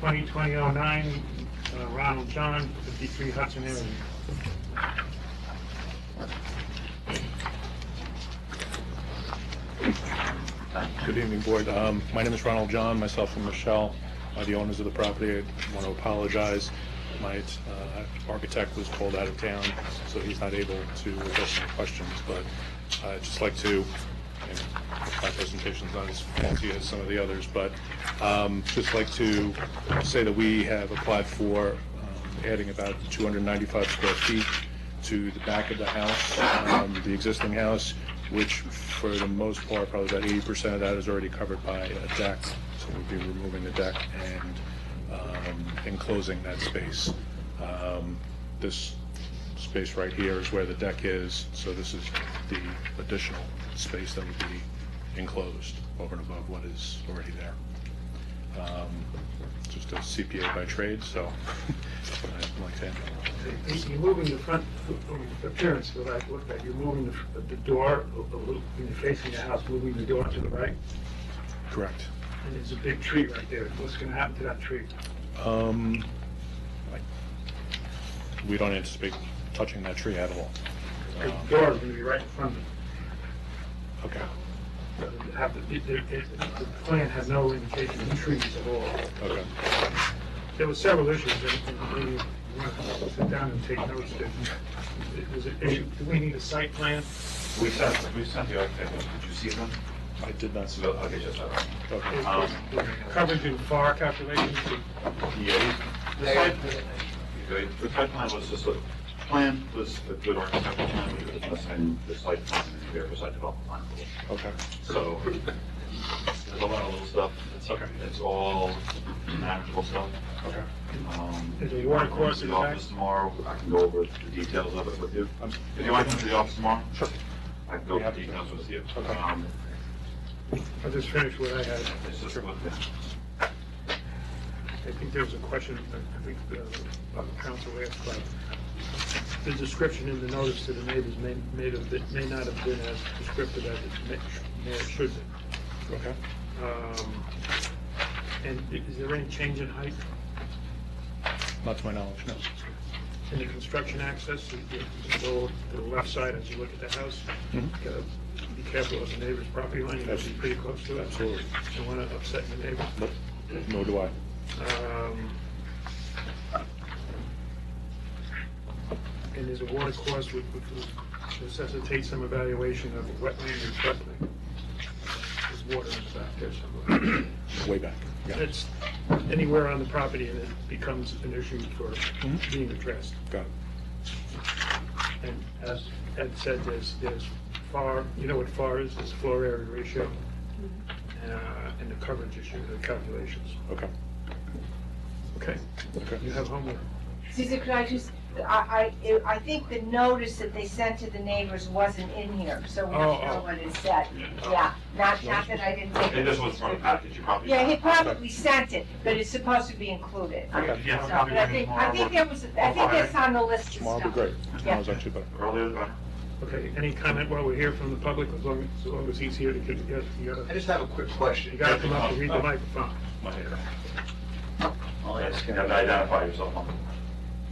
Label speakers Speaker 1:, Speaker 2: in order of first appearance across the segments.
Speaker 1: 2020-09, uh, Ronald John, 53 Hudson Avenue.
Speaker 2: Good evening, Board. Um, My name is Ronald John, myself and Michelle are the owners of the property. I want to apologize. My uh, architect was called out of town, so he's not able to address my questions, but I'd just like to, and my presentation's not as faulty as some of the others, but um, just like to say that we have applied for um, adding about 295 square feet to the back of the house, um, the existing house, which for the most part, probably about eighty percent of that is already covered by a deck. So we'd be removing the deck and um, enclosing that space. Um, This space right here is where the deck is, so this is the additional space that would be enclosed over and above what is already there. Um, Just a CPA by trade, so I'd like to handle it.
Speaker 1: You- You're moving the front appearance, what I looked at, you're moving the- the door, a little- when you're facing the house, moving the door to the right,
Speaker 2: Correct.
Speaker 1: and there's a big tree right there. What's going to happen to that tree?
Speaker 2: Um, I- we don't anticipate touching that tree at all. Um,
Speaker 1: The door is going to be right in front of it.
Speaker 2: Okay,
Speaker 1: Have The it- it- it- the plan had no indication of trees at all.
Speaker 2: okay.
Speaker 1: There were several issues, and and we want to sit down and take notes. that- that was an issue. Do we need a site plan?
Speaker 3: We sent, we sent the architect, one. did you see them?
Speaker 2: I did not see
Speaker 3: So,
Speaker 2: that.
Speaker 3: okay, just, all right.
Speaker 2: Okay.
Speaker 3: Um,
Speaker 1: Coverage and FAR calculations,
Speaker 3: Yeah, the site, the- the site plan was just a, plan was a good architectural plan, but it was less than the site plan, and the other side development plan.
Speaker 2: Okay,
Speaker 3: So, there's a lot of little stuff, it's,
Speaker 2: Okay.
Speaker 3: it's all manageable stuff.
Speaker 2: okay.
Speaker 3: Um,
Speaker 1: Is there water course in the
Speaker 3: I'll come
Speaker 1: back?
Speaker 3: to office tomorrow, I can go over the details of it with you.
Speaker 2: I'm-
Speaker 3: If you want to come to the office tomorrow?
Speaker 2: Sure.
Speaker 3: I can go over the details with you.
Speaker 2: Okay.
Speaker 3: Um,
Speaker 1: I'll just finish what I had.
Speaker 3: It's just what,
Speaker 1: I think there was a question, I think, uh, of council asked about the description in the notice to the neighbors may, may have, been- may not have been as descriptive as it may, may, should be.
Speaker 2: Okay.
Speaker 1: Um, And i- is there any change in height
Speaker 2: Not to my knowledge, no.
Speaker 1: in the construction access? You- you- you Go to the left side as you look at the house.
Speaker 2: Mhm.
Speaker 1: Gotta Be careful of the neighbor's property line, you must be pretty close to it.
Speaker 2: Absolutely.
Speaker 1: Don't want to upset the neighbor.
Speaker 2: Nope. Nor do I.
Speaker 1: Um, And there's a water course which which necessitates some evaluation of wetland and floodplain. There's water in the back there somewhere.
Speaker 2: Way back. Got it.
Speaker 1: It's anywhere on the property and it becomes an issue for
Speaker 2: Mhm.
Speaker 1: being addressed.
Speaker 2: Got it.
Speaker 1: And as Ed said, there's, there's FAR, you know what FAR is, it's floor area ratio, uh, and the coverage issue, the calculations.
Speaker 2: Okay,
Speaker 1: Okay,
Speaker 2: okay.
Speaker 1: you have homework.
Speaker 4: Susan, could I just, I, I, I think the notice that they sent to the neighbors wasn't in here, so we
Speaker 1: Oh,
Speaker 4: don't
Speaker 1: oh.
Speaker 4: know what it said. Yeah, not, not that I didn't take it.
Speaker 3: it just was from the package, you probably.
Speaker 4: Yeah, he probably sent it, but it's supposed to be included. So,
Speaker 3: Okay. Yeah,
Speaker 4: But
Speaker 3: I'll
Speaker 4: I
Speaker 3: be
Speaker 4: think,
Speaker 3: tomorrow.
Speaker 4: I think there was, I think that's on the list of stuff.
Speaker 2: Tomorrow will be great. Tomorrow's actually better.
Speaker 3: Earlier, the better.
Speaker 1: Okay, any comment while we're here from the public, as long, as long as he's here, to get, you
Speaker 5: I
Speaker 1: gotta,
Speaker 5: just have a quick question.
Speaker 1: you gotta come up and read the microphone.
Speaker 3: My hair.
Speaker 5: I'll ask him.
Speaker 3: You have to identify yourself on the.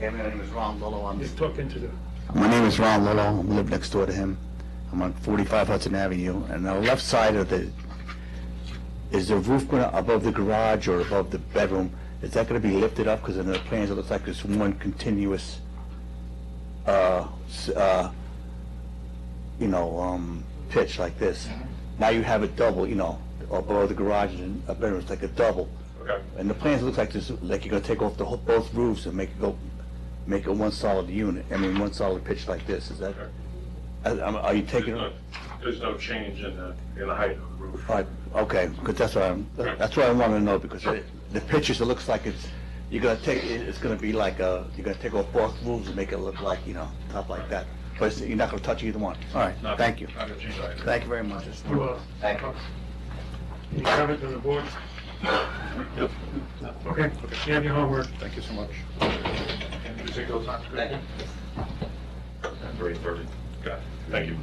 Speaker 5: Yeah, my name is Ron Lillo. I'm-
Speaker 1: Just talk into the,
Speaker 5: My name is Ron Lillo. I live next door to him. I'm on 45 Hudson Avenue, and the left side of the, is the roof going to above the garage or above the bedroom? Is that going to be lifted up? Because in the plans, it looks like it's one continuous, uh, s- uh, you know, um, pitch like this. Now you have it double, you know, above the garage and a bedroom, it's like a double.
Speaker 3: Okay.
Speaker 5: And the plans look like this, like you're gonna take off the whole, both roofs and make it go, make it one solid unit, I mean, one solid pitch like this, is that? I- I'm- Are you taking, all
Speaker 3: There's no change in the, in the height of the roof.
Speaker 5: right, okay, because that's what I'm, that's what I wanna know, because it- the pictures, it looks like it's, you're gonna take, it- it's gonna be like, uh, you're gonna take off both roofs and make it look like, you know, top like that, but it's- you're not gonna touch either one, all right,
Speaker 3: Not-
Speaker 5: thank you,
Speaker 3: Not gonna change either.
Speaker 5: thank you very much.
Speaker 1: you are.
Speaker 5: Thank you.
Speaker 1: Any comment from the board? Okay, you have your homework.
Speaker 2: Thank you so much.
Speaker 3: Three thirty. Got it. Thank you.